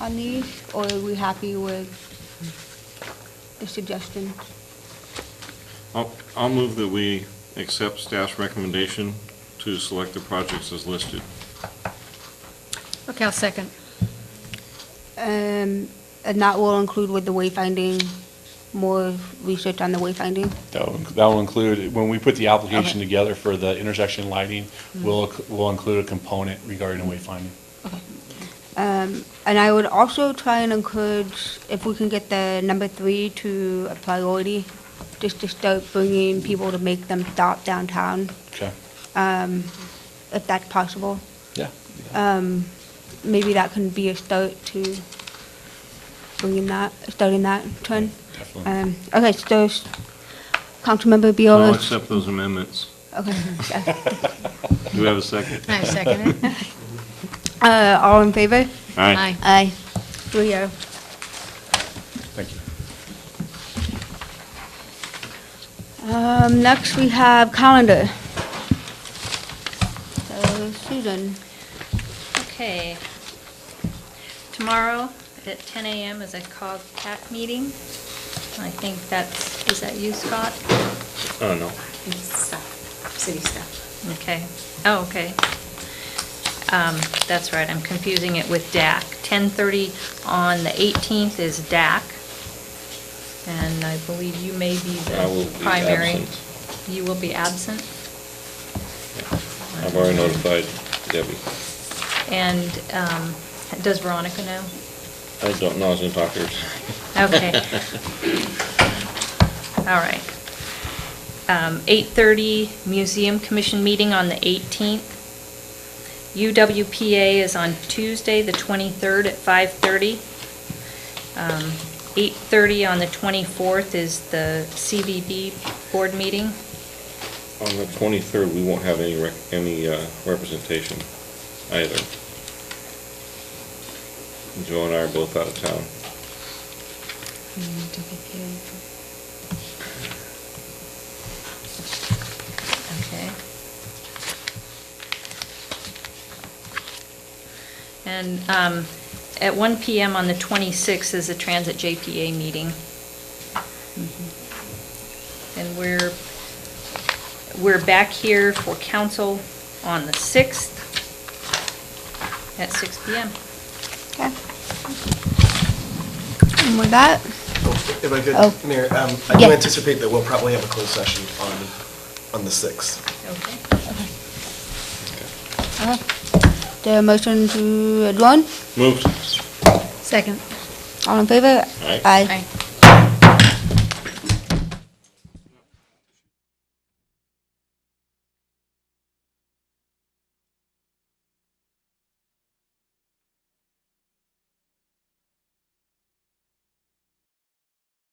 on these, or are we happy with the suggestions? I'll, I'll move that we accept staff's recommendation to select the projects as listed. Okay, I'll second. Um, And that will include with the wayfinding, more research on the wayfinding? That will, that will include, when we put the application Okay. together for the intersection lighting, we'll, we'll include a component regarding wayfinding. Um, And I would also try and encourage, if we can get the number three to a priority, just to start bringing people to make them stop downtown, Okay? if that's possible. Yeah. Um, Maybe that can be a start to bringing that, starting that trend. Definitely. Um, Okay, so, s- Councilmember I'll Biola. accept those amendments. Okay. yeah. Do we have a second? I second it. Uh, All in favor? Aye. Aye. Three oh. Thank you. Um, next we have calendar. So Susan, Okay. Tomorrow at 10 a.m. is a COG CAP meeting. I think that's, is that you, Scott? Oh, no. Staff, city staff. Okay. Oh, okay. Um, That's right, I'm confusing it with DAC. 10:30 on the 18th is DAC. And I believe you may be I will the be primary. absent. You will be absent? I've already notified Debbie. And um, does Veronica know? I don't know, I was gonna talk to her. Okay. All right. Um, 8:30 Museum Commission meeting on the 18th. UWPA is on Tuesday, the 23rd at 5:30. Um, 8:30 on the 24th is the CVB board meeting. On the 23rd, we won't have any, rec- any uh, representation either. Joe and I are both out of town. Okay. And um, at 1 PM on the 26th is the Transit JPA meeting. Mm-hmm. And we're, we're back here for council on the 6th at 6 PM. okay. And with that, If I Oh. could, Mayor, um, I do Yeah. anticipate that we'll probably have a closed session on, on the 6th. Okay. uh, the motion to adjourn, Moved. Second. all in favor? Aye. Aye. Aye.